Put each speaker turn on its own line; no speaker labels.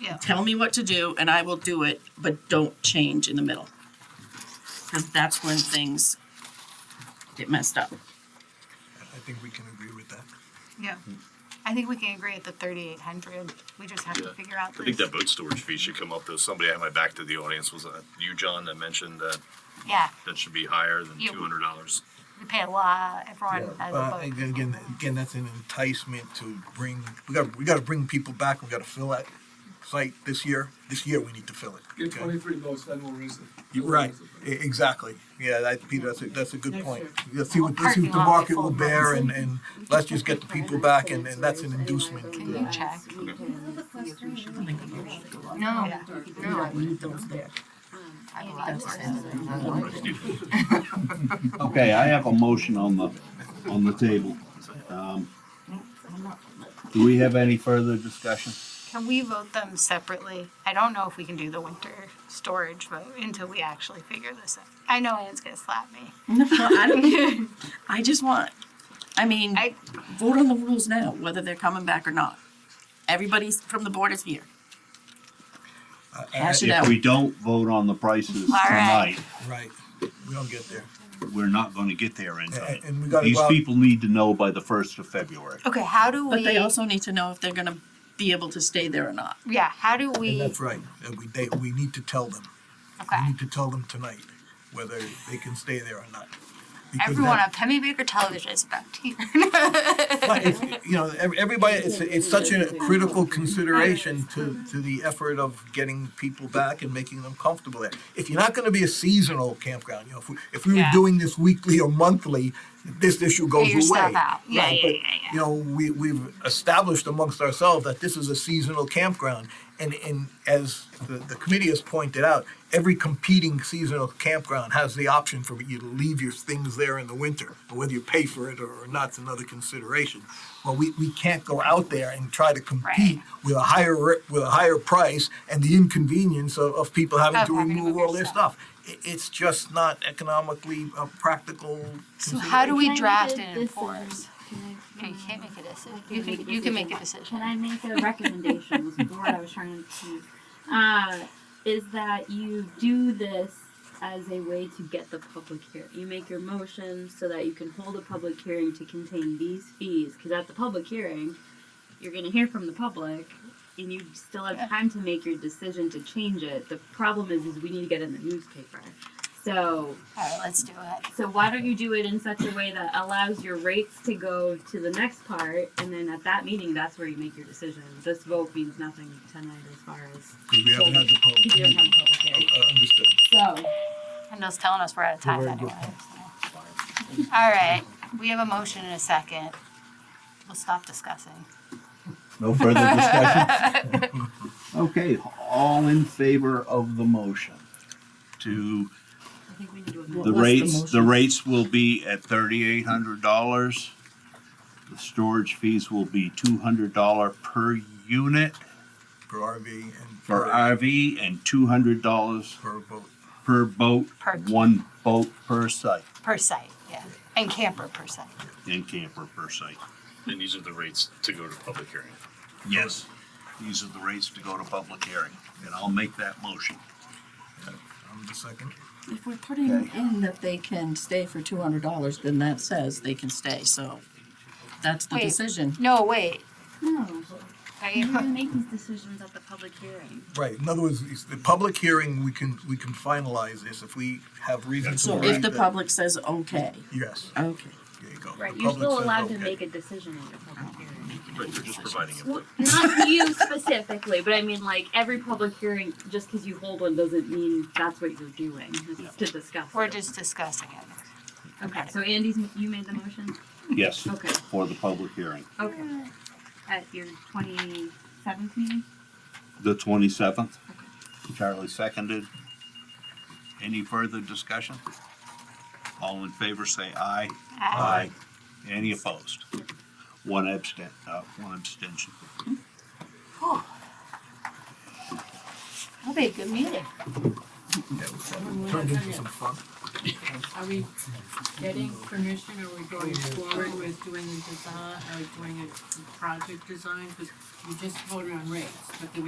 Yeah.
Tell me what to do and I will do it, but don't change in the middle. Cause that's when things get messed up.
I think we can agree with that.
Yeah, I think we can agree at the thirty-eight hundred, we just have to
Yeah.
figure out
I think
this.
that boat storage fee should come up, though. Somebody had my back to the audience, was that you, John, that mentioned that
Yeah,
that should be higher than
Yeah.
two hundred dollars?
we pay a lot, everyone has a
Uh,
vote.
again, again, again, that's an enticement to bring, we gotta, we gotta bring people back, we gotta fill that site this year, this year we need to fill it.
Get
okay?
twenty-three votes, then we'll raise it.
You're right, E- exactly, yeah, that, Peter, that's a, that's a good
Next
point.
year.
Let's see what, let's see what the
Parking lot will
market
be
will
full.
bear and, and let's just get the people back and, and that's an inducement.
Can you check?
No,
Yeah.
no. Need those there.
I have a lot of questions.
Okay, I have a motion on the, on the table. Um, Do we have any further discussion?
Can we vote them separately? I don't know if we can do the winter storage vote until we actually figure this out. I know Anne's gonna slap me.
No, I don't, I just want, I mean,
I,
vote on the rules now, whether they're coming back or not. Everybody's from the board is here.
Uh,
Hash it
uh,
out.
If we don't vote on the prices
All right.
tonight,
Right, we don't get there.
we're not gonna get there in time.
And- and we gotta
These
go out-
people need to know by the first of February.
okay, how do
But they
we,
also need to know if they're gonna be able to stay there or not.
yeah, how do
And
we,
that's right, and we, they, we need to tell them, we
okay.
need to tell them tonight whether they can stay there or not. Because
Everyone
that-
on Penny Baker Television is about to.
But it's, you know, ev- everybody, it's, it's such a critical consideration to, to the effort of getting people back and making them comfortable there. If you're not gonna be a seasonal campground, you know, if we, if we were
Yeah.
doing this weekly or monthly, this issue goes away.
your stuff out. Yeah,
Right,
yeah,
but,
yeah, yeah.
You know, we, we've established amongst ourselves that this is a seasonal campground. And, and as the, the committee has pointed out, every competing seasonal campground has the option for you to leave your things there in the winter. But Whether you pay for it or not's another consideration. But we, we can't go out there and try to compete with a higher, ri- with a higher price and the inconvenience of, of people having
Of
to
having to
remove
move
all their
your
stuff. It, it's just not economically uh, practical.
So how do we
Can I make a
draft and
decision?
enforce?
Can I-
No, you can't make a decision. You can,
make a
you can
decision.
make a
Can
decision.
I make a recommendation, was the word I was trying to, uh, is that you do this as a way to get the public here. You make your motion so that you can hold a public hearing to contain these fees, cause at the public hearing, you're gonna hear from the public, and you still have time to make your decision to change it. The problem is, is we need to get it in the newspaper. So,
Alright, let's do it.
so why don't you do it in such a way that allows your rates to go to the next part, and then at that meeting, that's where you make your decision. This vote means nothing tonight as far as
Because we haven't had the
you
public,
don't have a public hearing.
uh, understood.
So,
Kendall's telling us we're out of time
We're
anyway.
good.
so. Alright, we have a motion in a second. We'll stop discussing.
No further discussion? Okay, all in favor of the motion to
I think we need to.
The rates, the rates will be at thirty-eight hundred dollars. The storage fees will be two hundred dollar per unit
For RV and.
for RV and two hundred dollars
For boat.
per boat,
Per-
one boat per site,
Per site, yeah, and camper per site.
and camper per site.
And these are the rates to go to public hearing.
Yes, these are the rates to go to public hearing, and I'll make that motion.
I'm the second.
If we're putting in that they can stay for two hundred dollars, then that says they can stay, so that's the
Wait.
decision.
No, wait,
no,
are
you're
you,
gonna make these decisions at the public hearing.
Right, in other words, it's the public hearing, we can, we can finalize this if we have reason to
So
believe
if the
that-
public says okay,
Yes,
okay.
there you go. The
Right, you're
public
still
says
allowed to
okay.
make a decision at your public hearing.
Right, you're just providing
Well,
input.
not you specifically, but I mean, like, every public hearing, just because you hold one doesn't mean that's what you're doing,
Yeah.
it's to discuss.
we're
it.
just discussing it.
Okay, so Andy's, you made the motion?
Yes,
Okay.
for the public hearing,
Okay. At your twenty-seventh meeting?
the twenty-seventh. Charlie seconded. Any further discussion? All in favor, say aye.
Aye.
Any opposed? One abstent, uh, one abstention.
That'll be a good meeting.
Yeah, Turned into some fun.
Are we getting permission, are we going forward with uh, doing the design, or doing a project design? Because we just voted on rates, but do we